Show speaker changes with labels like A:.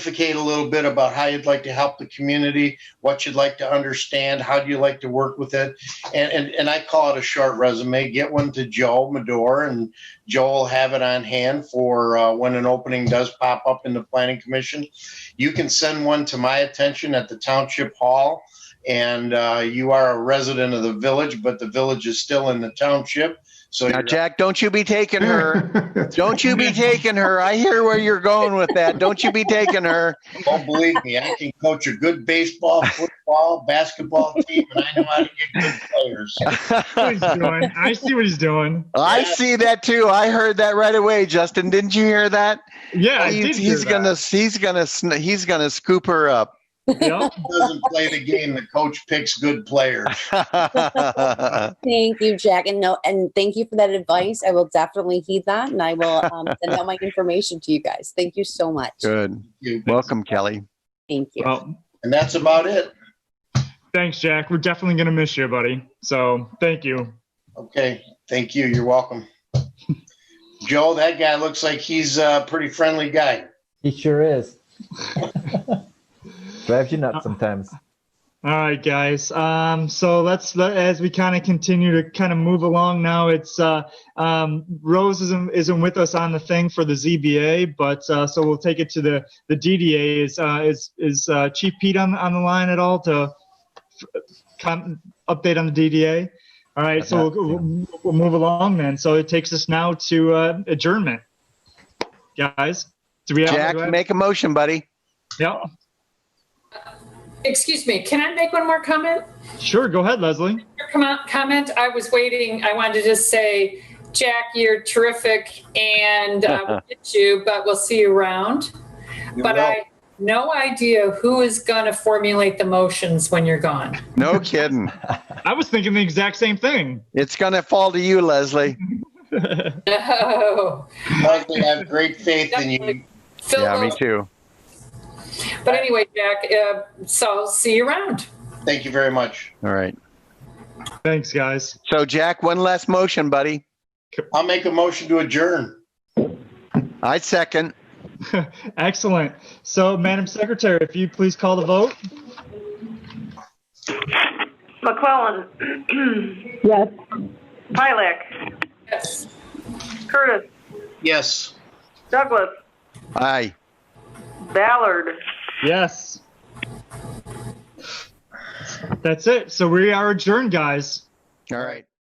A: pontificate a little bit about how you'd like to help the community, what you'd like to understand, how do you like to work with it. And, and, and I call it a short resume. Get one to Joel Medor, and Joel will have it on hand for uh, when an opening does pop up in the Planning Commission. You can send one to my attention at the Township Hall, and uh, you are a resident of the village, but the village is still in the township. So
B: Now,
A: you're-
B: Jack, don't you be taking her. Don't you be taking her. I hear where you're going with that. Don't you be taking her.
A: Don't believe me. I can coach a good baseball, football, basketball team, and I know how to get good players.
C: what he's doing. I see what he's doing.
B: I see that too. I heard that right away, Justin. Didn't you hear that?
C: Yeah, I
B: He-
C: did
B: he's
C: hear that.
B: gonna he's gonna sn- he's gonna scoop her up.
C: Yep.
A: Doesn't play the game. The coach picks good players.
D: Thank you, Jack, and no, and thank you for that advice. I will definitely heed that, and I will um, send out my information to you guys. Thank you so much.
B: Good.
A: You-
B: Welcome, Kelly.
D: Thank you.
C: Well,
A: And that's about it.
C: thanks, Jack. We're definitely gonna miss you, buddy. So thank you.
A: Okay. Thank you. You're welcome. Joe, that guy looks like he's a pretty friendly guy.
E: He sure is. Drives you nuts sometimes.
C: All right, guys. Um, so let's let, as we kind of continue to kind of move along now. It's uh, um, Rose isn't, isn't with us on the thing for the ZBA, but uh, so we'll take it to the the DDA. Is uh, is is uh, Chief Pete on on the line at all to f- com- update on the DDA? All right, so we'll, we'll, we'll move along then. So it takes us now to uh, adjournment, guys. Do we have?
B: Jack,
C: do I-
B: make a motion, buddy.
C: yeah,
F: Excuse me, can I make one more comment?
C: sure. Go ahead, Leslie.
F: Your com- Comment, I was waiting, I wanted to just say, Jack, you're terrific and uh, we'll get you, but we'll see you around.
A: You
F: But
A: will.
F: I, no idea who is going to formulate the motions when you're gone.
B: No kidding.
C: I was thinking the exact same thing.
B: It's gonna fall to you, Leslie.
F: No.
A: Leslie, I have great faith in you.
F: Fill
B: Yeah, me
F: those-
B: too.
F: But anyway, Jack, uh, so see you around.
A: Thank you very much.
B: All right.
C: Thanks, guys.
B: So, Jack, one last motion, buddy.
A: I'll make a motion to adjourn.
B: I second.
C: Excellent. So, Madam Secretary, if you please call the vote.
G: McClellan.
H: Yes.
G: Pilak.
F: Yes.
G: Curtis.
A: Yes.
G: Douglas.
B: Aye.
G: Ballard.
C: Yes. That's it. So we are adjourned, guys.
B: All right.